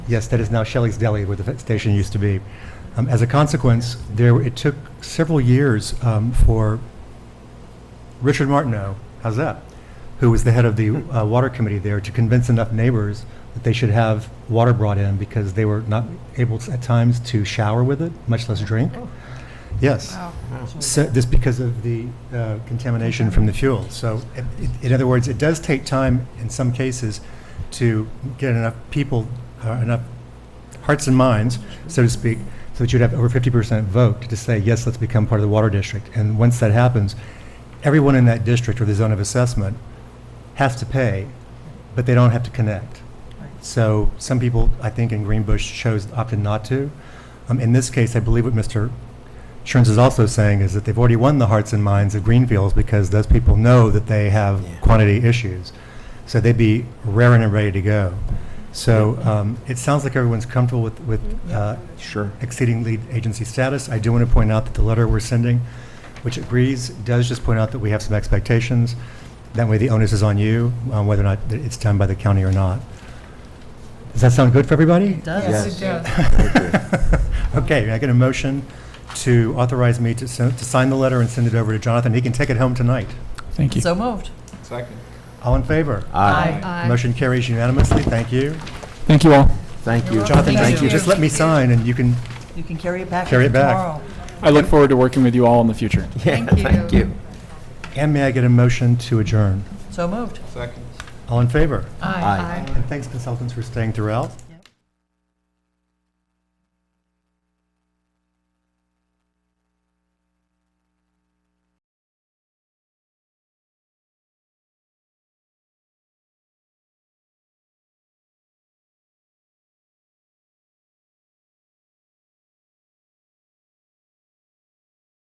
Yes, that is now Shelley's Deli, where the vet station used to be. Um, As a consequence, there, it took several years um, for Richard Martineau, how's that? Who was the head of the uh, water committee there, to convince enough neighbors that they should have water brought in because they were not able to- at times to shower with it, much less drink. Yes. Wow. So, this because of the uh, contamination from the fuel. So, i- i- in other words, it does take time in some cases to get enough people, uh, enough hearts and minds, so to speak, so that you'd have over 50% vote to say, yes, let's become part of the water district. And once that happens, everyone in that district or the zone of assessment has to pay, but they don't have to connect. So some people, I think in Greenbush, chose, opted not to. Um, In this case, I believe what Mr. Sherns is also saying is that they've already won the hearts and minds of Greenfields because those people know that they have Yeah. quantity issues. So they'd be raring and ready to go. So um, it sounds like everyone's comfortable with, with uh, Sure. exceeding lead agency status. I do want to point out that the letter we're sending, which agrees, does just point out that we have some expectations. That way, the onus is on you, on whether or not that it's done by the county or not. Does that sound good for everybody? Yes. Yes, it does. Okay, I get a motion to authorize me to send, to sign the letter and send it over to Jonathan. He can take it home tonight. Thank you. So moved. Second. All in favor? Aye. Motion carries unanimously. Thank you. Thank you all. Thank you. Jonathan, Thank just- you. just let me sign and you can, You can carry it back Carry it back. tomorrow. I look forward to working with you all in the future. Yeah, Thank you. Thank you. and may I get a motion to adjourn? So moved. Second. All in favor? Aye. And thanks consultants for staying throughout.